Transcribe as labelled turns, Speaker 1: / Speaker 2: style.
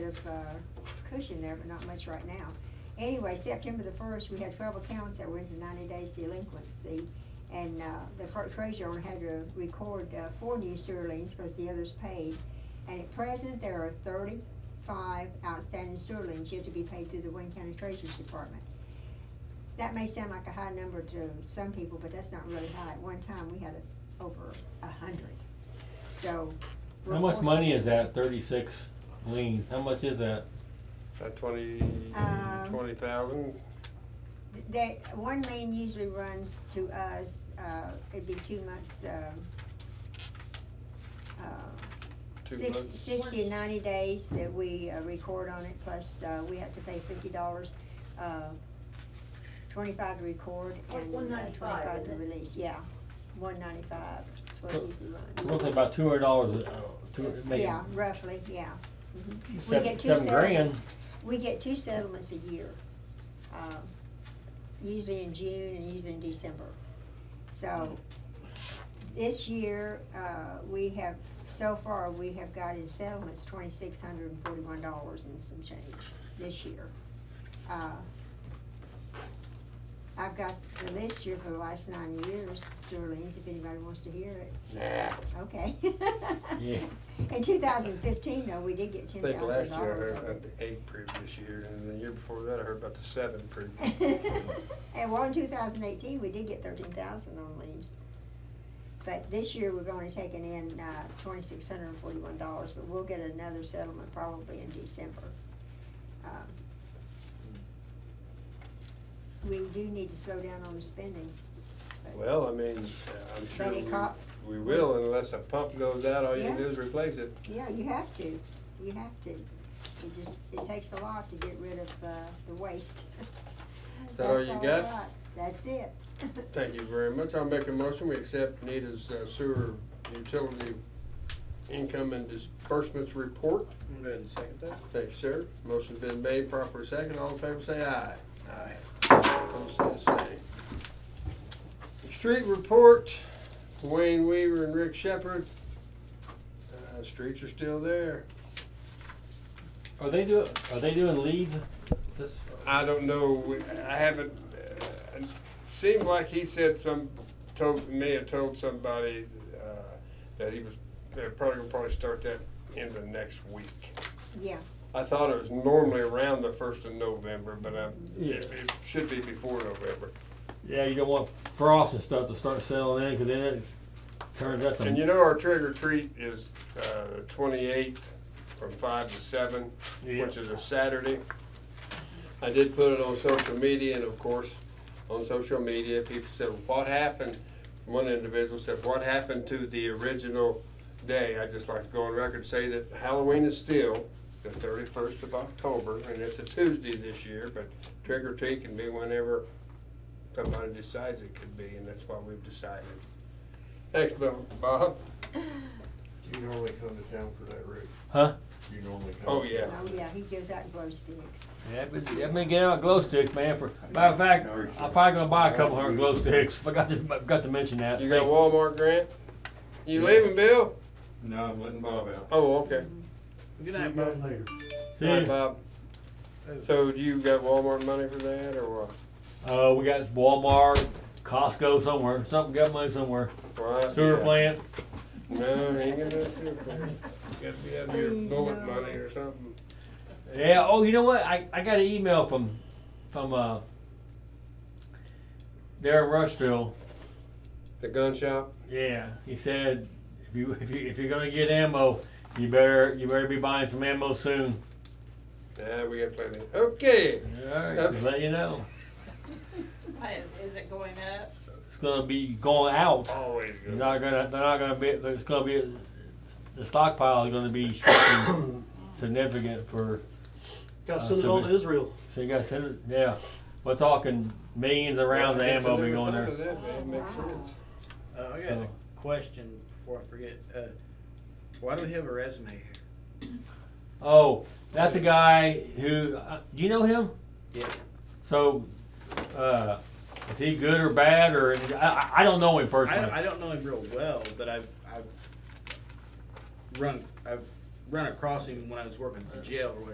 Speaker 1: of uh, cushion there, but not much right now. Anyway, September the first, we had twelve accounts that were into ninety days delinquency. And uh, the clerk treasurer had to record uh, four new sewer liens because the others paid. And at present, there are thirty-five outstanding sewer liens yet to be paid through the Wayne County Treasurer's Department. That may sound like a high number to some people, but that's not really high. At one time, we had a- over a hundred, so. we're
Speaker 2: How much
Speaker 1: fortunate.
Speaker 2: money is that, thirty-six liens, how much is that?
Speaker 3: About twenty,
Speaker 1: Um,
Speaker 3: twenty thousand?
Speaker 1: That, one lien usually runs to us, uh, it'd be two months, um, uh,
Speaker 3: Two
Speaker 1: six-
Speaker 3: months.
Speaker 1: sixty and ninety days that we uh, record on it, plus, uh, we have to pay fifty dollars, uh, twenty-five to record
Speaker 4: Like
Speaker 1: and uh,
Speaker 4: 195,
Speaker 1: twenty-five to
Speaker 4: isn't it?
Speaker 1: release, yeah. One ninety-five is what it usually runs.
Speaker 2: Roughly about two hundred dollars, uh, two, maybe.
Speaker 1: Yeah, roughly, yeah. Mhm. We
Speaker 2: Seven-
Speaker 1: get two
Speaker 2: Mm-hmm. seven grand.
Speaker 1: settlements. We get two settlements a year, um, usually in June and usually in December. So this year, uh, we have, so far, we have gotten settlements twenty-six hundred and forty-one dollars and some change this year. Uh, I've got the list here for the last nine years, sewer liens, if anybody wants to hear it. Okay.
Speaker 2: Yeah.
Speaker 1: In two thousand fifteen, though, we did get
Speaker 3: I
Speaker 1: ten
Speaker 3: think last
Speaker 1: thousand
Speaker 3: year uh, I heard
Speaker 1: dollars.
Speaker 3: about the eight previous year, and the year before that I heard about the seven previous.
Speaker 1: And well, in two thousand eighteen, we did get thirteen thousand on leaves. But this year, we're only taking in, uh, twenty-six hundred and forty-one dollars, but we'll get another settlement probably in December. Um, We do need to slow down on the spending. but-
Speaker 3: Well, I mean, I'm
Speaker 1: But it
Speaker 3: sure
Speaker 1: caught-
Speaker 3: we, we will unless a pump goes out, all you
Speaker 1: Yeah.
Speaker 3: can do is replace it.
Speaker 1: Yeah, you have to, you have to. It just, it takes a lot to get rid of, uh, the waste.
Speaker 3: Is that all
Speaker 1: That's
Speaker 3: you
Speaker 1: I
Speaker 3: got?
Speaker 1: That's it.
Speaker 3: Thank you very much. I'll make a motion. We accept Nita's uh, sewer utility income and disbursements report.
Speaker 5: Go ahead and second that.
Speaker 3: Thank you, sir. Motion's been made, proper second. All in favor, say aye. Aye. Opposed, say the same. Street report, Wayne Weaver and Rick Shepherd. Uh, streets are still there.
Speaker 2: Are they do, are they doing leads? This,
Speaker 3: I don't know, We- I haven't, uh, it seemed like he said some, told, may have told somebody, uh, that he was, they're probably gonna probably start that in the next week.
Speaker 1: Yeah,
Speaker 3: I thought it was normally around the first of November, but I, it,
Speaker 2: Yeah.
Speaker 3: it should be before November.
Speaker 2: yeah, you don't want frost and stuff to start selling in, cause then it turns out
Speaker 3: And you
Speaker 2: to,
Speaker 3: know, our trick or treat is, uh, the twenty-eighth from five to seven,
Speaker 2: Yeah.
Speaker 3: which is a Saturday. I did put it on social media and of course, on social media, people said, what happened? One individual said, what happened to the original day? I'd just like to go on record and say that Halloween is still the thirty-first of October and it's a Tuesday this year, but trick or treat can be whenever somebody decides it could be and that's why we've decided. Thanks, Bill. Bob?
Speaker 5: Do you normally come to town for that, Rick?
Speaker 2: huh?
Speaker 5: Do you normally come?
Speaker 3: Oh,
Speaker 5: to
Speaker 3: yeah.
Speaker 1: oh yeah, he goes out and blows sticks.
Speaker 2: Yeah, but, yeah, I've been getting out glow sticks, man, for, matter of fact, I'm probably gonna buy a couple hundred glow sticks, forgot to, forgot to mention that.
Speaker 3: You got Walmart grant? You leaving, Bill?
Speaker 5: town? No, I'm letting Bob out.
Speaker 3: Oh, okay.
Speaker 5: Good night, Bob. Later.
Speaker 2: See
Speaker 3: All right,
Speaker 2: ya.
Speaker 3: Bob. So do you got Walmart money for that or what?
Speaker 2: Uh, we got Walmart, Costco somewhere, something got money somewhere,
Speaker 3: Well, I-
Speaker 2: sewer
Speaker 3: yeah.
Speaker 2: plant,
Speaker 3: No, ain't gonna do sewer plant. Gotta be out here
Speaker 1: Please,
Speaker 3: bullet
Speaker 1: no.
Speaker 3: money or something.
Speaker 2: Yeah. Oh, you know what? I, I got an email from from uh, there in Rushville.
Speaker 3: The gun shop?
Speaker 2: Yeah. He said if you if you if you're gonna get ammo, you better you better be buying some ammo soon.
Speaker 3: Nah, we got plenty. Okay.
Speaker 2: All right.
Speaker 3: Yep.
Speaker 2: Let you know.
Speaker 4: Why, is- is it going up?
Speaker 2: It's gonna be going out.
Speaker 3: Always
Speaker 2: You're not gonna. They're not gonna be. It's gonna be. The stockpile is gonna be shrinking significant for.
Speaker 6: Gotta
Speaker 2: Uh,
Speaker 6: send it
Speaker 2: so
Speaker 6: on
Speaker 2: we-
Speaker 6: to Israel.
Speaker 2: So you gotta send it. Yeah. We're talking millions of rounds of ammo be going there.
Speaker 3: Makes sense.
Speaker 7: Uh, I got
Speaker 2: So-
Speaker 7: a question before I forget. Uh, why do we have a resume here?
Speaker 2: Oh, that's a guy who. Uh, do you know him?
Speaker 7: Yeah.
Speaker 2: So, uh, is he good or bad or I- I, I don't know him
Speaker 7: I
Speaker 2: personally.
Speaker 7: don't, I don't know him real well, but I've, I've run I've run across him when I was working at the jail or whatever.